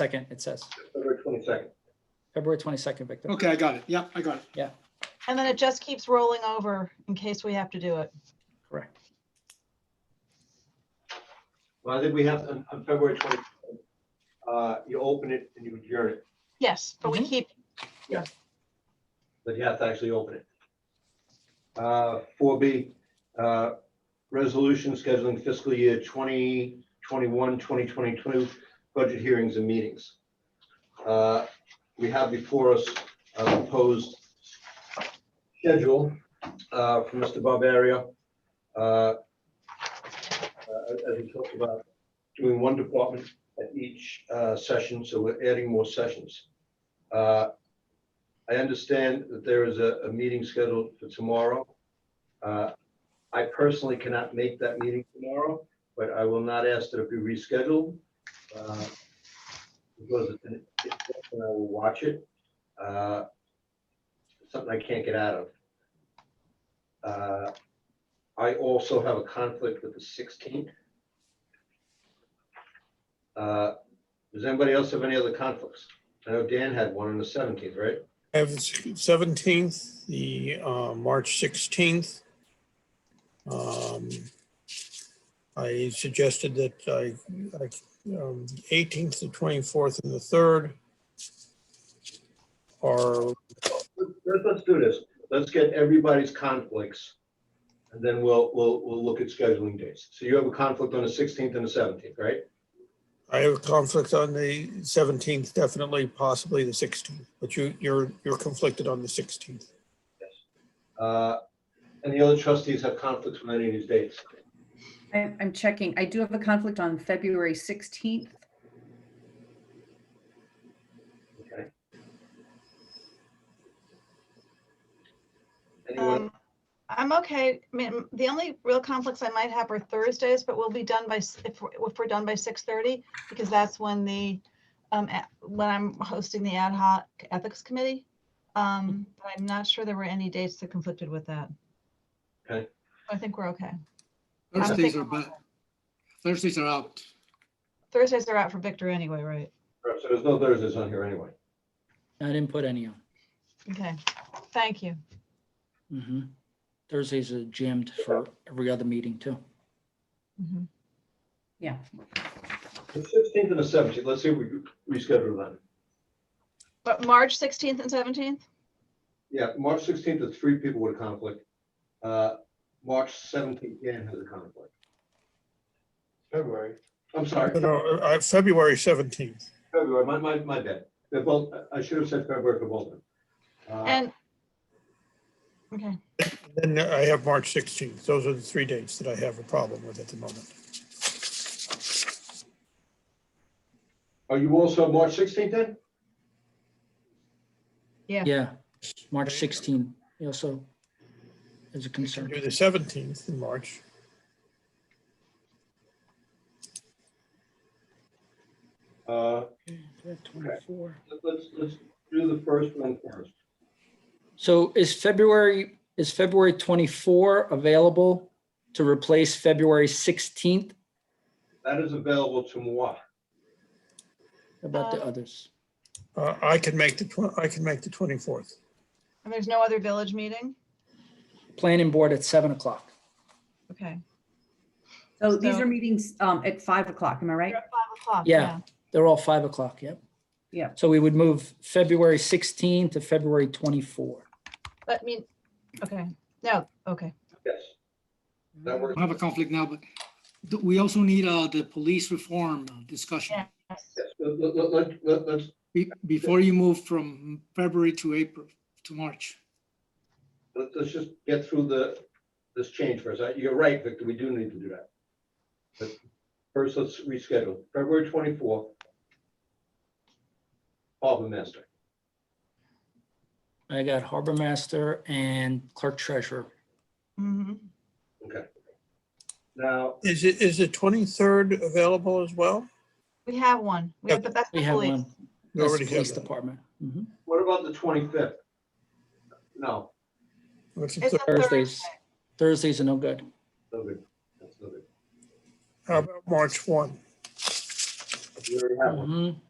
second, it says, February twenty-second. February twenty-second, Victor. Okay, I got it. Yep, I got it. And then it just keeps rolling over in case we have to do it. Correct. Well, I think we have, on, on February twenty-second, uh, you open it and you adjourn it, Yes, but we Mhm. keep, but you have to actually open it. Uh, four B, uh, resolution scheduling fiscal year 2021-2022 budget hearings and meetings. Uh, we have before us a proposed schedule, uh, from Mr. Barbario. Uh, uh, as we talked about, doing one department at each uh, session, so we're adding more sessions. Uh, I understand that there is a, a meeting scheduled for tomorrow. Uh, I personally cannot make that meeting tomorrow, but I will not ask that it be rescheduled. uh, Because it's an- it's- and I will watch it. Uh, Something I can't get out of. Uh, I also have a conflict with the 16th. Uh, Does anybody else have any other conflicts? I know Dan had one on the 17th, right? I have the seventeenth, the uh, March sixteenth. Um, I suggested that I, um, eighteenth, the twenty-fourth, and the third are, Let's, let's do this. Let's get everybody's conflicts. And then we'll, we'll, we'll look at scheduling dates. So you have a conflict on the sixteenth and the seventeenth, right? I have a conflict on the seventeenth, definitely, possibly the sixteenth, but you, you're, you're conflicted on the sixteenth. Uh, and the other trustees have conflicts with any of these dates. I- I'm checking. I do have a conflict on February 16th. Okay. Anyone, um, I'm okay. I mean, the only real conflicts I might have are Thursdays, but we'll be done by, s- if, we're- if we're done by 6:30, because that's when the, um, a- when I'm hosting the ad hoc ethics committee. Um, but I'm not sure there were any dates that conflicted with that. Okay. I think we're okay. I'm Thursdays are thinking- back. Thursdays are out. Thursdays are out for Victor anyway, right? so there's no Thursdays on here anyway. I didn't put any on. Okay, thank you. Mhm. Thursdays are jammed for every other meeting too. Mhm. Yeah. The sixteenth and the seventeenth, let's see if we can reschedule them. But March 16th and 17th? Yeah, March sixteenth is three people with a conflict. Uh, March seventeenth, Dan has a conflict. February. I'm sorry. No, I, February seventeenth. February, my, my, my bad. They're both, I- I should have said February for both of them. Uh, And, okay, Then I have March sixteenth. Those are the three dates that I have a problem with at the moment. Are you also March sixteenth then? Yeah. Yeah, March sixteen, you also is a concern. Do the seventeenth in March. Uh, Twenty-four. let's, let's do the first one first. So is February, is February 24 available to replace February 16th? That is available to moi. How About the Um, others? Uh, I can make the, twen- I can make the twenty-fourth. and there's no other village meeting? Planning board at 7 o'clock. Okay. So these So- are meetings um, at 5 o'clock, am I right? You're at five o'clock, Yeah. yeah. They're all 5 o'clock, yep. Yep. So we would move February 16 to February 24. But I mean, okay, no, okay. Yes. That works. I have a conflict now, but th- we also need uh, the police reform discussion Yeah. Yes, Let, let, let- let, let's, be- before you move from February to April to March. let's, let's just get through the, this change first. Uh, You're right, Victor, we do need to do that. But first, let's reschedule. February twenty-fourth. Harbor Master. I got harbor master and clerk treasurer. Mm-hmm. Now, Is it, is the twenty-third available as well? We have one. We have, the that's We the have police. one. We That's the already have police that. department. Mhm. what about the twenty-fifth? No. What's the It's a third? Thursdays, Thursday. Thursdays are no good. No good. That's no good. How about March one? We already have one. Mhm.